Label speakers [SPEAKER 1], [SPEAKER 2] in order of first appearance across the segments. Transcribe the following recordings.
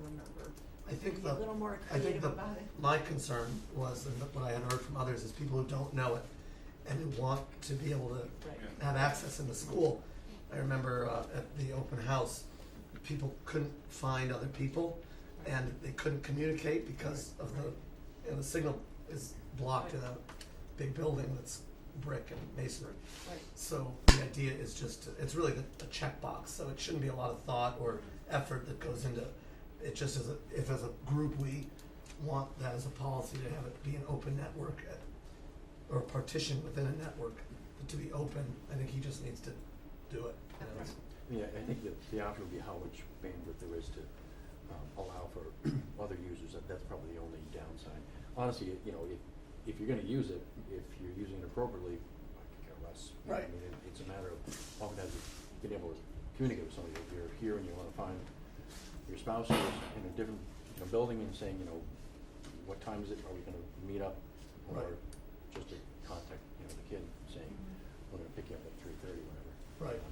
[SPEAKER 1] number.
[SPEAKER 2] I think
[SPEAKER 1] Be a
[SPEAKER 2] the,
[SPEAKER 1] little more
[SPEAKER 2] I think
[SPEAKER 1] creative
[SPEAKER 2] the,
[SPEAKER 1] about it.
[SPEAKER 2] my concern was, and what I had heard from others, is people who don't know it and who want to be able to
[SPEAKER 1] Right.
[SPEAKER 2] have access in the school. I remember uh, at the open house, people couldn't find other people, and they couldn't communicate because of the, you know, the signal is blocked in a big building that's brick and masonry.
[SPEAKER 1] Right.
[SPEAKER 2] So the idea is just, to- it's really the- a checkbox, so it shouldn't be a lot of thought or effort that goes into, it just as a, if as a group, we want that as a policy to have it be an open network at, or a partition within a network, but to be open, I think he just needs to do it, you know, it's-
[SPEAKER 3] Yeah, I think that the option would be how much bandwidth there is to um, allow for other users, that, that's probably the only downside. Honestly, it- you know, if, if you're gonna use it, if you're using it appropriately, I could care less. You know,
[SPEAKER 2] Right.
[SPEAKER 3] I mean, it, it's a matter of, oftentimes, you being able to communicate with somebody, if you're here and you wanna find your spouse who's in a different, you know, building and saying, you know, what time is it, are we gonna meet up?
[SPEAKER 2] Right. Mm-hmm.
[SPEAKER 3] Or just to contact, you know, the kid saying, we're gonna pick you up at three thirty, whatever.
[SPEAKER 2] Right.
[SPEAKER 3] Um,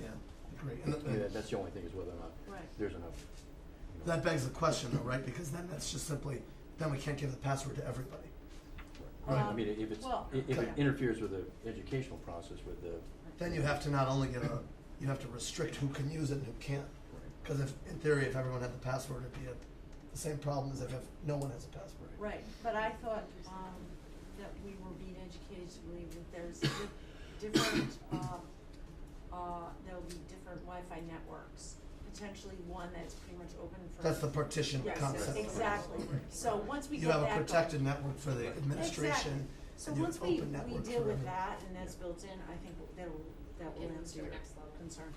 [SPEAKER 2] yeah, agree. And
[SPEAKER 3] I mean,
[SPEAKER 2] that,
[SPEAKER 3] that- that's the only thing is whether or not
[SPEAKER 1] Right.
[SPEAKER 3] there's enough. you know,
[SPEAKER 2] that begs the question though, right, because then that's just simply, then we can't give the password to everybody.
[SPEAKER 3] Right, I
[SPEAKER 1] Um,
[SPEAKER 3] mean, if it's,
[SPEAKER 1] well,
[SPEAKER 3] i- if
[SPEAKER 2] yeah.
[SPEAKER 3] it interferes with the educational process with the,
[SPEAKER 2] Then you have to not only give a, you have to restrict who can use it and who can't. Because if, in theory, if everyone had the password, it'd be a, the same problem as if, if no one has a password.
[SPEAKER 1] Right, but I thought, um, that we were being educated to believe that there's di- different, uh, uh, there'll be different Wi-Fi networks. Potentially one that's pretty much open for.
[SPEAKER 2] That's the partition
[SPEAKER 1] Yes,
[SPEAKER 2] concept.
[SPEAKER 1] exactly. So once we
[SPEAKER 2] You
[SPEAKER 1] get that
[SPEAKER 2] have
[SPEAKER 1] going.
[SPEAKER 2] a protected network for the administration,
[SPEAKER 1] So
[SPEAKER 2] and you have
[SPEAKER 1] once
[SPEAKER 2] an
[SPEAKER 1] we,
[SPEAKER 2] open
[SPEAKER 1] we
[SPEAKER 2] network for
[SPEAKER 1] deal
[SPEAKER 2] everyone.
[SPEAKER 1] with that and that's built in, I think that'll, that will
[SPEAKER 4] It'll
[SPEAKER 1] answer
[SPEAKER 4] do
[SPEAKER 1] your
[SPEAKER 4] next level.
[SPEAKER 1] concern.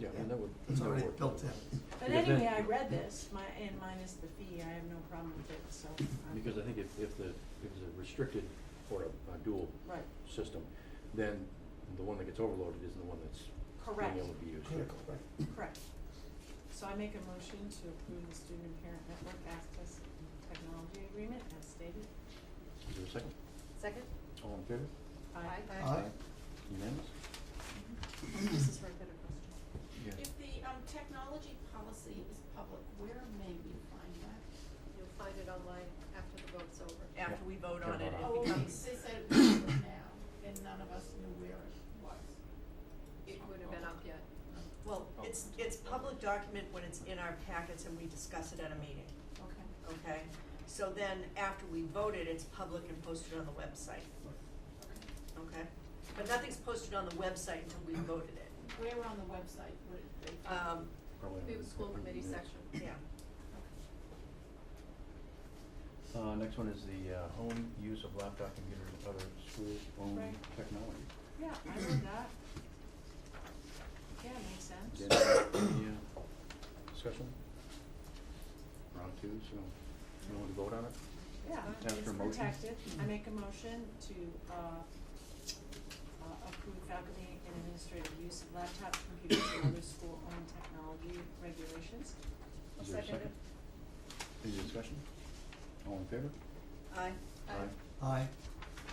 [SPEAKER 3] yeah, and that would.
[SPEAKER 2] It's
[SPEAKER 3] that would
[SPEAKER 2] already
[SPEAKER 3] work.
[SPEAKER 2] built in.
[SPEAKER 1] But
[SPEAKER 3] Because then-
[SPEAKER 1] anyway, I read this, my, and minus the fee, I have no problem with it, so. I'm-
[SPEAKER 3] Because I think if, if the, if it's a restricted or a, a dual
[SPEAKER 1] Right,
[SPEAKER 3] system, then the one that gets overloaded isn't the one that's
[SPEAKER 1] Correct.
[SPEAKER 3] being able to be used.
[SPEAKER 2] Critical, right?
[SPEAKER 1] correct. So I make a motion to approve the Student and Parent Network Access and Technology Agreement as stated.
[SPEAKER 3] Is there a second?
[SPEAKER 4] Second?
[SPEAKER 3] All in favor?
[SPEAKER 1] Aye.
[SPEAKER 2] Aye.
[SPEAKER 3] Unanimous?
[SPEAKER 1] Mm-hmm.
[SPEAKER 4] Mrs. Rayford, a question.
[SPEAKER 3] Yeah.
[SPEAKER 5] If the, um, technology policy is public, where may we find that?
[SPEAKER 4] You'll find it online after the vote's over.
[SPEAKER 6] after we vote on it,
[SPEAKER 3] Yeah.
[SPEAKER 6] it
[SPEAKER 5] Oh, okay,
[SPEAKER 6] becomes,
[SPEAKER 5] they said it was public now, and none of us knew where it was.
[SPEAKER 4] It would have been up yet.
[SPEAKER 6] well, it's, it's public document when it's in our packets and we discuss it at a meeting,
[SPEAKER 5] Okay.
[SPEAKER 6] okay? So then, after we vote it, it's public and posted on the website, okay? But nothing's posted on the website until we voted it,
[SPEAKER 5] Where on the website would it be?
[SPEAKER 6] um,
[SPEAKER 1] Oh,
[SPEAKER 3] Probably
[SPEAKER 4] It
[SPEAKER 3] under-
[SPEAKER 4] was school
[SPEAKER 3] under
[SPEAKER 4] committee
[SPEAKER 3] minutes.
[SPEAKER 4] section.
[SPEAKER 6] yeah.
[SPEAKER 3] Uh, next one is the, uh, home use of laptop computer and other school-owned
[SPEAKER 1] Right.
[SPEAKER 3] technology.
[SPEAKER 1] Yeah, I read that. Yeah, makes sense.
[SPEAKER 3] Any uh, discussion? Round two, so you want to vote on it?
[SPEAKER 1] Yeah,
[SPEAKER 3] Ask
[SPEAKER 1] it's
[SPEAKER 3] for a motion?
[SPEAKER 1] protected. I make a motion to, uh, uh, approve faculty and administrative use of laptops, computers, and other school-owned technology regulations.
[SPEAKER 3] Is there a
[SPEAKER 4] Second.
[SPEAKER 3] second? Any discussion? All in favor?
[SPEAKER 6] Aye,
[SPEAKER 4] Aye.
[SPEAKER 2] Aye.
[SPEAKER 1] Uh,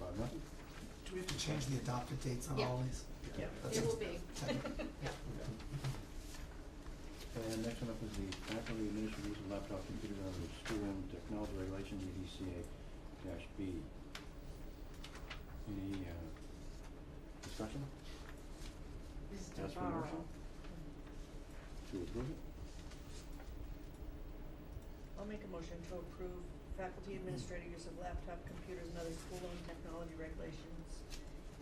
[SPEAKER 3] Five, nothing?
[SPEAKER 2] Do we have to change the adopted dates on
[SPEAKER 4] Yeah.
[SPEAKER 2] all these?
[SPEAKER 3] Yeah.
[SPEAKER 2] That's
[SPEAKER 4] It will
[SPEAKER 2] just
[SPEAKER 4] be.
[SPEAKER 2] technical.
[SPEAKER 3] Okay. And next one up is the faculty administrative use of laptop computer and other school-owned technology regulations, E EDCA dash B. Any, uh, discussion
[SPEAKER 1] Mr.
[SPEAKER 3] Ask for a
[SPEAKER 1] Barrow.
[SPEAKER 3] motion? to approve it?
[SPEAKER 6] I'll make a motion to approve faculty administrative use of laptop, computers, and other school-owned technology regulations,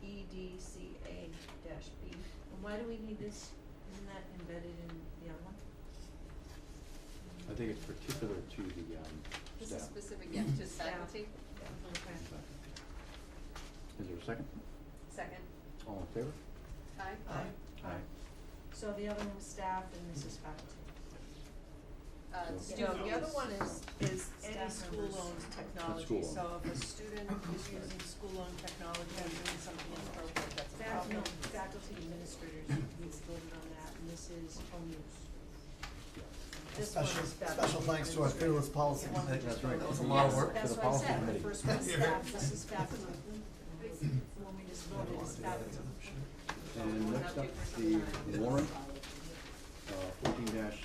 [SPEAKER 6] E EDCA dash B.
[SPEAKER 1] And why do we need this, isn't that embedded in the other one?
[SPEAKER 3] I think it's particular to the, um,
[SPEAKER 4] This
[SPEAKER 3] staff.
[SPEAKER 4] is specific, yeah, to
[SPEAKER 1] Staff.
[SPEAKER 4] faculty.
[SPEAKER 1] Okay.
[SPEAKER 3] Is there a second?
[SPEAKER 4] Second.
[SPEAKER 3] All in favor?
[SPEAKER 4] Aye.
[SPEAKER 2] Aye.
[SPEAKER 3] Aye.
[SPEAKER 1] So the other one was staff and this is faculty.
[SPEAKER 4] Uh,
[SPEAKER 3] So-
[SPEAKER 4] student
[SPEAKER 6] No, the other
[SPEAKER 4] use.
[SPEAKER 6] one is, is
[SPEAKER 1] Staff
[SPEAKER 6] any
[SPEAKER 1] members.
[SPEAKER 6] school-owned technology,
[SPEAKER 3] school-owned.
[SPEAKER 6] so if a student is using school-owned technology and doing something inappropriate, that's a
[SPEAKER 1] Faculty,
[SPEAKER 6] problem.
[SPEAKER 1] faculty administrators, we voted on that and this is home use.
[SPEAKER 6] This one
[SPEAKER 2] Special,
[SPEAKER 6] is faculty
[SPEAKER 2] special thanks to our
[SPEAKER 6] administrative.
[SPEAKER 2] fearless policy
[SPEAKER 6] Yeah.
[SPEAKER 2] committee.
[SPEAKER 3] That's right.
[SPEAKER 2] That was a lot of
[SPEAKER 1] Yes,
[SPEAKER 2] work.
[SPEAKER 3] to
[SPEAKER 1] that's
[SPEAKER 3] the
[SPEAKER 1] what I
[SPEAKER 3] policy
[SPEAKER 1] said, the
[SPEAKER 3] committee.
[SPEAKER 1] first one's
[SPEAKER 2] Yeah.
[SPEAKER 1] staff, this is faculty. When we just voted, it's faculty.
[SPEAKER 3] And next up, the warrant, uh, fourteen dash